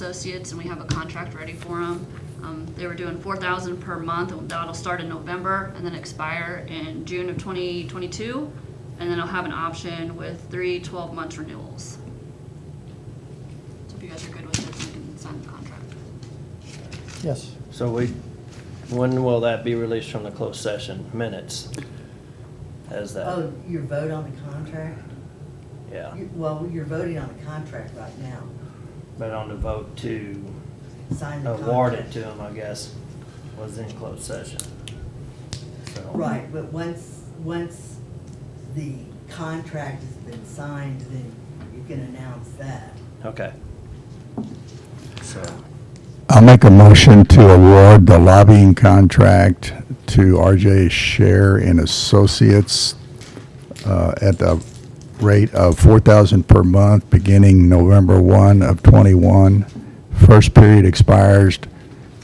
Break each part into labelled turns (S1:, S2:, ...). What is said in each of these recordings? S1: Associates, and we have a contract ready for them. Um, they were doing four thousand per month, and that'll start in November and then expire in June of twenty twenty-two. And then I'll have an option with three 12 month renewals. So if you guys are good with this, you can sign the contract.
S2: Yes.
S3: So we, when will that be released from the closed session minutes? As that,
S4: Oh, your vote on the contract?
S3: yeah,
S4: You- Well, you're voting on the contract right now.
S3: but on the vote to
S4: Sign the contract.
S3: award it to him, I guess, was in closed session. So-
S4: Right, but once, once the contract has been signed, then you can announce that.
S3: Okay. So,
S5: I'll make a motion to award the lobbying contract to RJ Share and Associates uh, at the rate of 4000 per month, beginning November 1 of '21. First period expires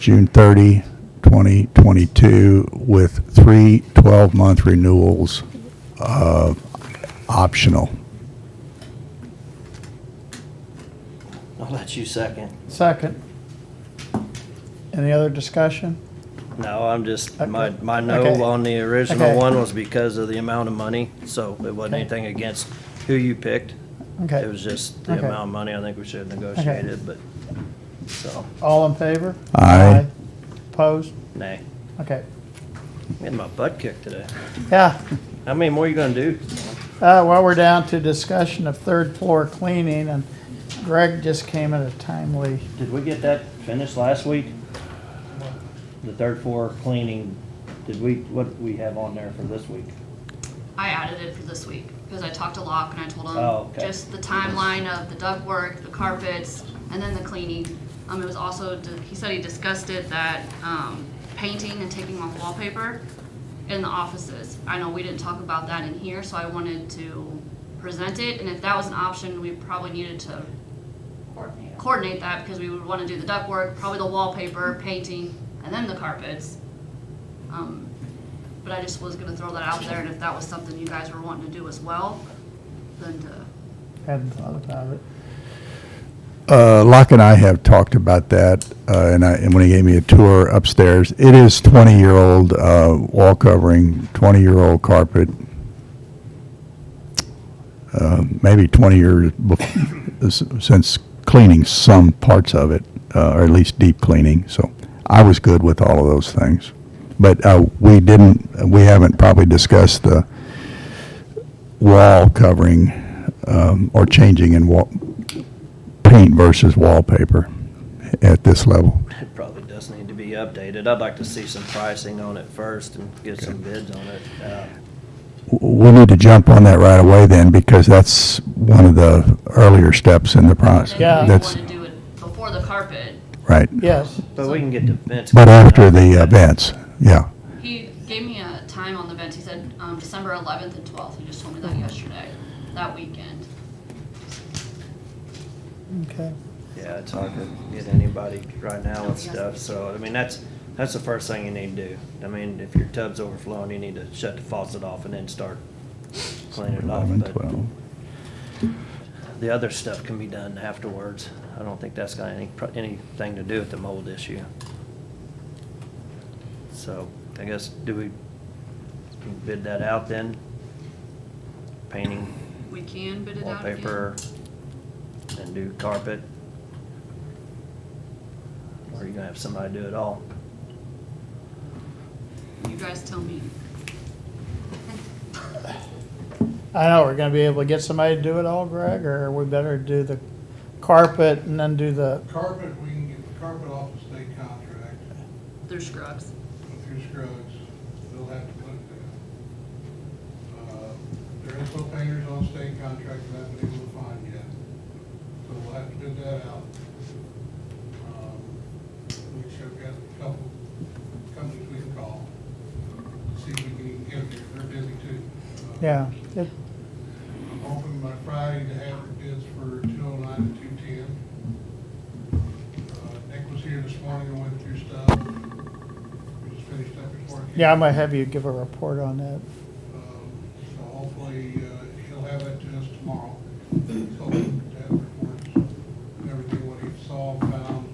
S5: June 30, 2022, with three 12-month renewals uh, optional.
S3: I'll let you second.
S2: Second. Any other discussion?
S3: No, I'm just, my,
S2: Okay.
S3: my no
S2: Okay.
S3: on the original
S2: Okay.
S3: one was because of the amount of money, so it wasn't
S2: Okay.
S3: anything against who you picked. It
S2: Okay.
S3: was just the
S2: Okay.
S3: amount of money I think we should have negotiated, but, so,
S2: All in favor?
S5: Aye.
S2: Opposed?
S3: nay.
S2: Okay.
S3: Getting my butt kicked today.
S2: Yeah.
S3: How many more you gonna do?
S2: Uh, well, we're down to discussion of third floor cleaning and Greg just came at a timely,
S3: Did we get that finished last week? The third floor cleaning, did we, what did we have on there for this week?
S1: I added it for this week, because I talked to Locke and I told him.
S3: Oh, okay.
S1: Just the timeline of the ductwork, the carpets, and then the cleaning. Um, it was also, he said he discussed it, that, um, painting and taking off wallpaper in the offices. I know we didn't talk about that in here, so I wanted to present it, and if that was an option, we probably needed to coordinate that, because we would wanna do the ductwork, probably the wallpaper, painting, and then the carpets. Um, but I just was gonna throw that out there, and if that was something you guys were wanting to do as well, then to,
S2: hadn't thought about it.
S5: Uh, Locke and I have talked about that, uh, and I, and when he gave me a tour upstairs, it is 20-year-old uh, wall covering, 20-year-old carpet, uh, maybe 20 years bef- s- since cleaning some parts of it, uh, or at least deep cleaning, so I was good with all of those things. But uh, we didn't, we haven't probably discussed the wall covering um, or changing in wall, paint versus wallpaper at this level.
S3: It probably does need to be updated. I'd like to see some pricing on it first and get some bids on it. Uh,
S5: W- We need to jump on that right away then, because that's one of the earlier steps in the process.
S2: Yeah.
S1: then you
S5: That's,
S1: wanna do it before the carpet.
S5: right,
S2: Yes.
S3: But we can get the fence.
S5: but after the uh,
S3: event.
S5: events, yeah.
S1: He gave me a time on the vents, he said, um, December eleventh and twelfth, he just told me that yesterday, that weekend.
S2: Okay.
S3: Yeah, it's hard to get anybody right now with stuff, so, I mean, that's, that's the first thing you need to do. I mean, if your tub's overflowing, you need to shut the faucet off and then start cleaning it off,
S5: 11,
S3: but
S5: 12.
S3: the other stuff can be done afterwards. I don't think that's got any, pro- anything to do with the mold issue. So, I guess, do we bid that out then? Painting,
S1: We can bid it out again.
S3: wallpaper, and do carpet? Or are you gonna have somebody do it all?
S1: You guys tell me.
S2: I know, we're gonna be able to get somebody to do it all, Greg, or we better do the carpet and then do the,
S6: Carpet, we can get the carpet off the state contract
S1: Through Scruggs.
S6: with your Scruggs, they'll have to put it down. Uh, There is no painters on state contract that I haven't been able to find yet, so we'll have to bid that out. Um, Which I've got a couple companies we can call, see if we can get them, here. they're busy too. Uh,
S2: yeah. It-
S6: I'm hoping by Friday to have the bids for two oh nine and two ten. Uh, Nick was here this morning and went through stuff. We just finished up his work.
S2: Yeah, I might have you give a report on that.
S6: Um, So hopefully, uh, he'll have that to us tomorrow.